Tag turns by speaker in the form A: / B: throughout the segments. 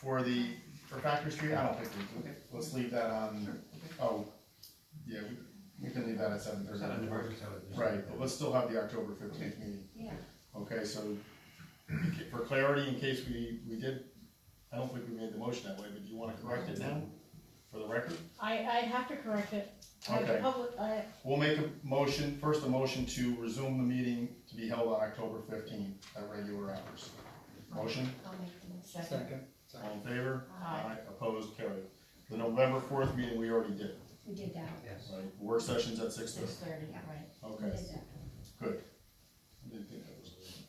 A: For the, for Factory Street, I don't think we,
B: Okay.
A: let's leave that on,
B: Okay.
A: oh, yeah, we, we can leave that at seven
C: It's
A: thirty.
C: not a target, so it's-
A: Right, but let's still have the October fifteenth meeting,
B: Yeah,
A: okay, so, for clarity, in case we, we did, I don't think we made the motion that way, but do you wanna correct it now? For the record?
D: I, I have to correct it. I have to
A: Okay.
D: public- I-
A: We'll make a motion, first a motion to resume the meeting to be held on October fifteenth at regular hours. Motion,
B: I'll make the motion.
E: Second.
A: all in favor?
D: Aye.
A: Opposed, carried. The November fourth meeting, we already did,
B: We did that,
E: Yes.
A: right, work sessions at six thirty,
D: Six thirty,
B: Yeah.
D: right.
B: we
A: okay,
B: did that.
A: good. I didn't think that was.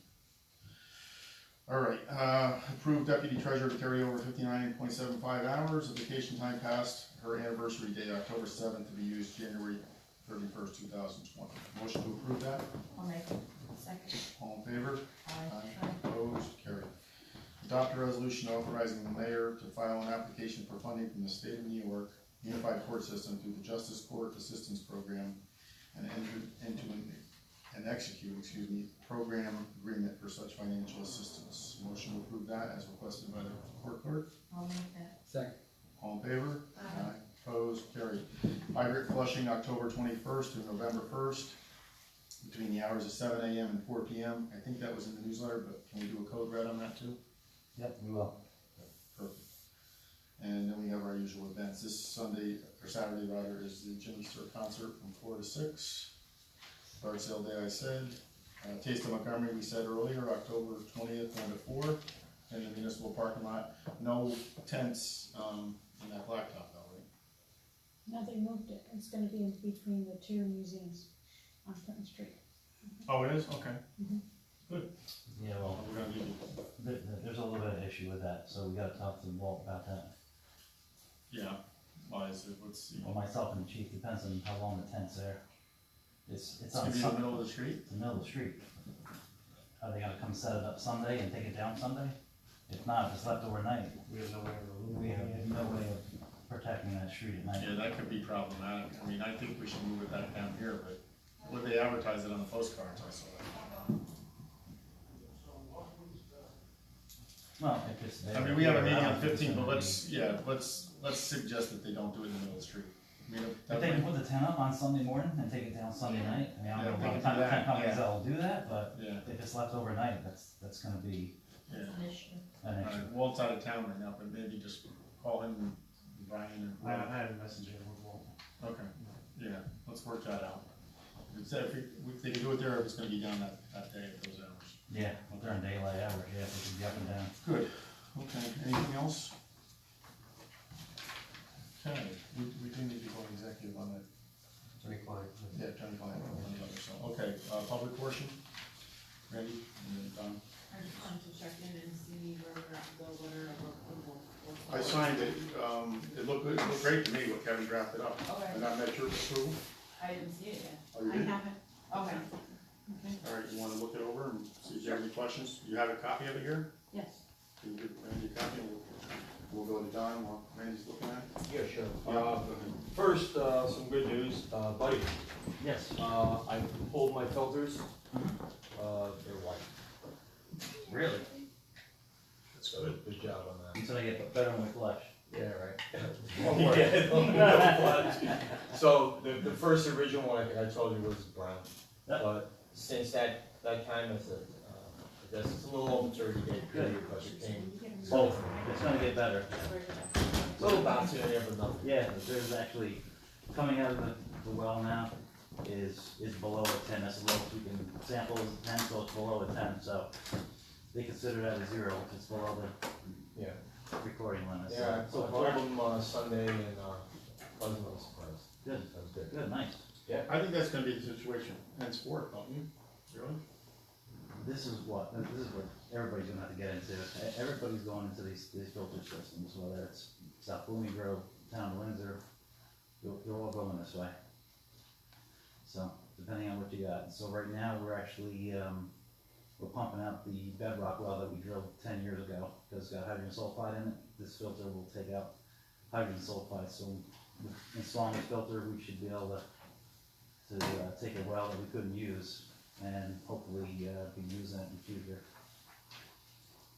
A: All right, uh, approved deputy treasurer to carry over fifty-nine point seven five hours of vacation time past her anniversary date, October seventh, to be used January thirty-first, two thousand twenty. Motion to approve that?
B: I'll make it. Second.
A: All in favor?
B: Aye.
A: Opposed, carried. Adopt a resolution authorizing the mayor to file an application for funding from the state of New York Unified Court System through the Justice Court Assistance Program and enter into an, and execute, excuse me, program agreement for such financial assistance. Motion to approve that as requested by the court clerk.
B: I'll make that.
E: Second.
A: All in favor?
B: Aye.
A: Opposed, carried. Hydrant flushing October twenty-first to November first, between the hours of seven AM and four PM. I think that was in the newsletter, but can we do a code red on that too?
C: Yep, we will.
A: Perfect. And then we have our usual events. This Sunday, or Saturday rather, is the Jimmy Stewart concert from four to six. Yard sale day, I said. Uh, Taste of Montgomery, we said earlier, October twentieth, one to four, in the municipal parking lot. No tents, um, in that blacktop though, right?
D: Now they moved it. It's gonna be in between the two museums on Clinton Street.
A: Oh, it is, okay.
C: You
A: We're
C: know,
A: gonna do,
C: there, there's a little bit of issue with that, so we gotta talk to Walt about that.
A: yeah, why is it, let's see.
C: Well, myself and the chief, depends on how long the tent's there. It's, it's
A: It's
C: on
A: gonna be in the
C: Sun-
A: middle of the street?
C: the middle of the street. Are they gonna come set it up Sunday and take it down Sunday? If not, if it's left overnight,
E: We have no way of.
C: we have no way of protecting that street at night.
A: Yeah, that could be problematic, I mean, I think we should move it back down here, but would they advertise it on the postcards, I saw it.
C: Well, if it's there.
A: I mean, we have a meeting
C: I
A: on
C: don't think it's
A: fifteen, but
C: gonna
A: let's, yeah, let's, let's suggest that they don't do it in the middle of the street. I mean, if-
C: If
A: that
C: they can
A: might-
C: put the tent up on Sunday morning and take it down Sunday night, I mean, I
A: Yeah,
C: don't
A: they
C: know
A: can
C: what
A: do
C: kind of
A: that,
C: tent companies
A: yeah.
C: that'll do that, but
A: Yeah,
C: if it's left overnight, that's, that's gonna be
A: yeah,
B: That's an issue.
C: an
A: all
C: issue.
A: right, Walt's out of town right now, but maybe just call him, and Brian
E: I
A: and,
E: I had a message in with Walt.
A: okay, yeah, let's work that out. If they, if they can do it there, it's gonna be done that, that day at those hours.
C: Yeah, during daylight hours, yeah, if it can be up and down.
A: Good, okay, anything else? Okay, we, we do need to go executive on that,
E: Attorney client.
A: yeah, attorney client, one other, so, okay, uh, public portion, Randy, and then Don.
F: I just wanted to check in and see where we're at, the letter of approval.
A: I signed it, um, it looked, good. it looked great to me what Kevin drafted up,
F: Okay,
A: and I met your approval,
F: I didn't see it yet.
A: are you
F: I
A: good?
F: haven't, okay,
A: All right, you wanna look it over and see if you have any questions, you have a copy of it here?
F: yes.
A: Can you give Randy a copy, and we'll, we'll go to Don while Randy's looking at it?
G: Yeah, sure.
A: Yeah,
G: Uh,
A: go ahead.
G: First, uh, some good news, uh, buddy,
C: Yes.
G: uh, I pulled my filters, uh, they're white.
C: Really?
G: That's good. Good job on that.
C: Until you get better on the flush.
G: Yeah, right. One word. So the, the first original one I think I told you was brown,
C: Yeah.
G: but since that, that time, it's a, uh, I guess it's a little over thirty day period, but it came.
C: Both, it's gonna get better.
G: Little bouncy, I never know.
C: Yeah, there's actually, coming out of the, the well now is, is below a ten, that's a little, we can sample as a ten, so it's below a ten, so they consider that a zero, if it's below
G: Yeah,
C: the recording limit, so.
G: yeah, I
C: so
G: pulled
C: far,
G: them, uh, Sunday and, uh, wasn't really surprised,
C: Good,
G: that was good.
C: good, nice.
A: I think that's gonna be the situation henceforth, don't you? Really?
C: This is what, this is what everybody's gonna have to get into. E- Everybody's going into these, these filter systems, whether it's South Blooming Grove, Town of Windsor, you're, you're all going this way. So, depending on what you got. So right now, we're actually, um, we're pumping out the bedrock well that we drilled ten years ago, because it's got hydrogen sulfide in it. This filter will take out hydrogen sulfide, so with installing this filter, we should be able to, to, uh, take a well that we couldn't use and hopefully, uh, be using it in the future.